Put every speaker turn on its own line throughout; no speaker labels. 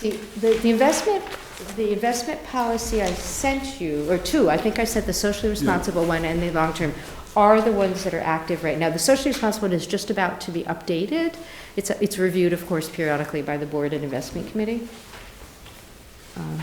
The, the the investment, the investment policy I sent you, or two, I think I sent the socially responsible one and the long-term, are the ones that are active right now. The socially responsible one is just about to be updated. It's, it's reviewed, of course, periodically by the board and investment committee. Um,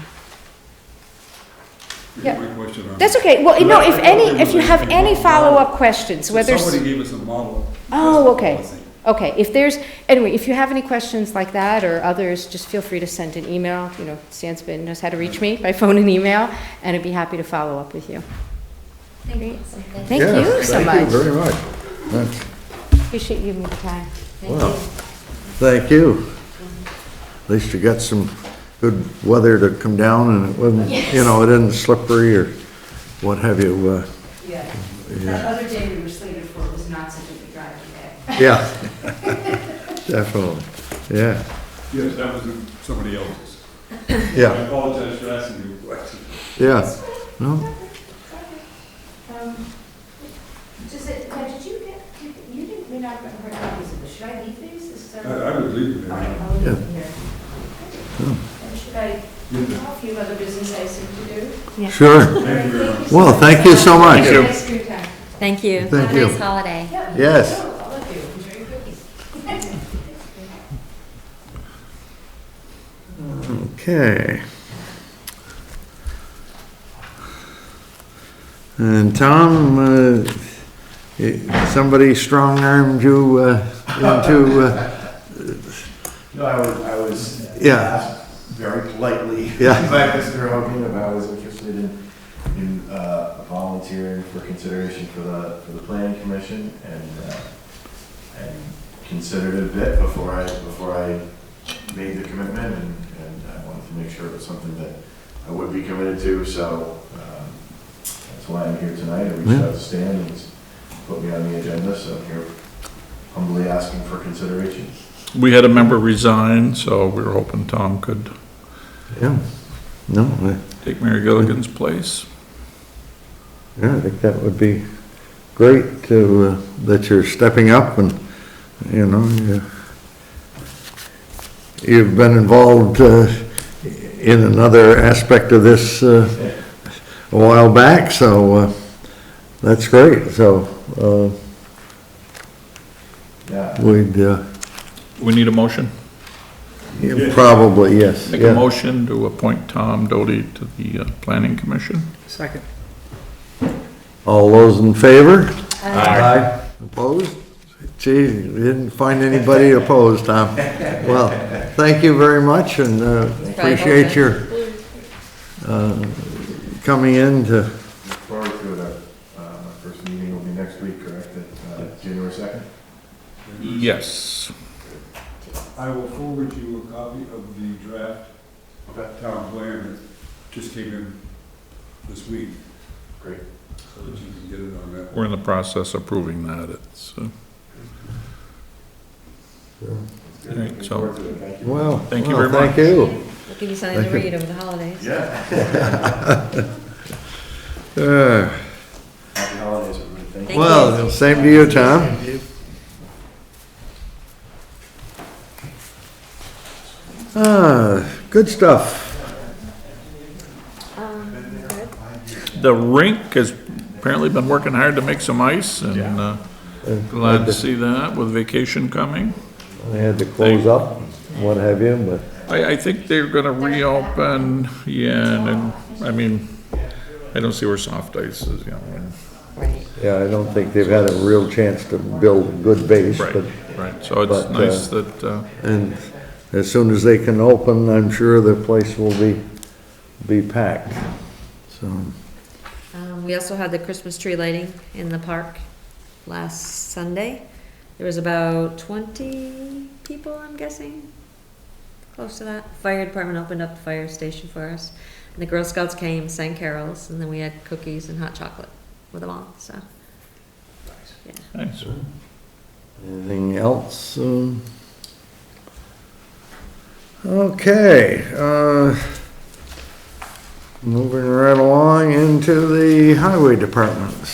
Here's my question on
That's
it.
okay, well, no, if
I- I
any,
thought
if you
there was
have
a-
any follow-up questions,
So
whether. s-
Somebody gave us a model.
Oh,
investment
okay.
policy.
Okay, if there's, anyway, if you have any questions like that or others, just feel free to send an email. You know, Stan Spin knows how to reach me by phone and email, and I'd be happy to follow up with you.
Thank you.
Thank
Yeah,
you so
Thank you
much.
very much. That's-
Appreciate you giving me the time.
Wow. Thank you. At least you got some good weather to come down and it wasn't, you know, it isn't slippery or what have you. uh,
Yeah, that other day we were slated for was not such a good drive today.
Yeah. Definitely, yeah,
Yes, that was somebody else's. I
yeah,
apologize for asking you a question.
yeah. No,
Um, Just, that- now, did you get, did- you didn't, we not have heard copies of this, should I leave these? Is
I,
there-
I would leave it
All right,
there.
I'll leave
Yeah.
them here. And should I, I have a few other business I seem to do.
sure.
Thank you very much.
Well, thank you so much.
Have a nice free time.
Thank you.
Thank
Have a nice
you.
holiday.
Yeah,
Yes.
sure, All of you, enjoy your cookies.
Okay. And Tom, uh, eh, somebody strong-armed you uh, into, uh,
No, I was, I was.
Yeah.
asked Very politely.
Yeah.
By Mr. Hogan, if I was interested in, in uh, volunteering for consideration for the, for the planning commission and, uh, and considered it a bit before I, before I made the commitment and, and I wanted to make sure it was something that I would be committed to, so, um, that's why I'm here tonight. I reached
Yeah.
out to Stan and he's put me on the agenda, so I'm here humbly asking for consideration.
We had a member resign, so we were hoping Tom could
yeah, no, uh, I-
take Mary Gilligan's place.
Yeah, I think that would be great to, uh, that you're stepping up and, you know, you- you've been involved uh, in another aspect of this uh, a while back, so uh, that's great. So uh,
Yeah.
we'd, uh,
We need a motion?
yeah, probably, yes.
Make a
yeah.
motion to appoint Tom Doty to the uh, Planning Commission?
Second.
All those in favor? Aye. Opposed? Gee, you didn't find anybody opposed, Tom. Well, thank you very much and uh,
probably
appreciate your uh, coming in to,
forward to it. Uh, my first meeting will be next week, correct? At, uh, January second?
Yes.
I will forward you a copy of the draft
Okay.
town plan that just came in this week,
Great.
so that you can get it on that.
We're in the process of approving that. It's, uh,
Good.
Great,
Looking
so-
forward to it. Thank you.
well.
Thank you
well,
very
Thank you.
We'll give you something to
Thank you.
read over the holidays.
Yeah.
Uh,
Happy holidays, everybody. Thank you.
Thank
Well, same to you, Tom. Ah, Good stuff.
The rink has apparently been working hard to make some ice, and uh, glad to see that with vacation coming.
I had to close up, what have you, but.
I, I think they're gonna reopen, yeah, and, then, I mean, I don't see where soft ice is, you know. and-
Right.
Yeah, I don't think they've had a real chance to build a good base, but,
Right, right, so it's
but, uh,
nice that, uh,
and as soon as they can open, I'm sure the place will be, be packed. So,
Um, we also had the Christmas tree lighting in the park last Sunday. There was about twenty people, I'm guessing, close to that. Fire department opened up the fire station for us. And the Girl Scouts came, sang carols, and then we had cookies and hot chocolate with them all, so. Yeah.
nice.
anything else? um? Okay, uh, moving right along into the highway department.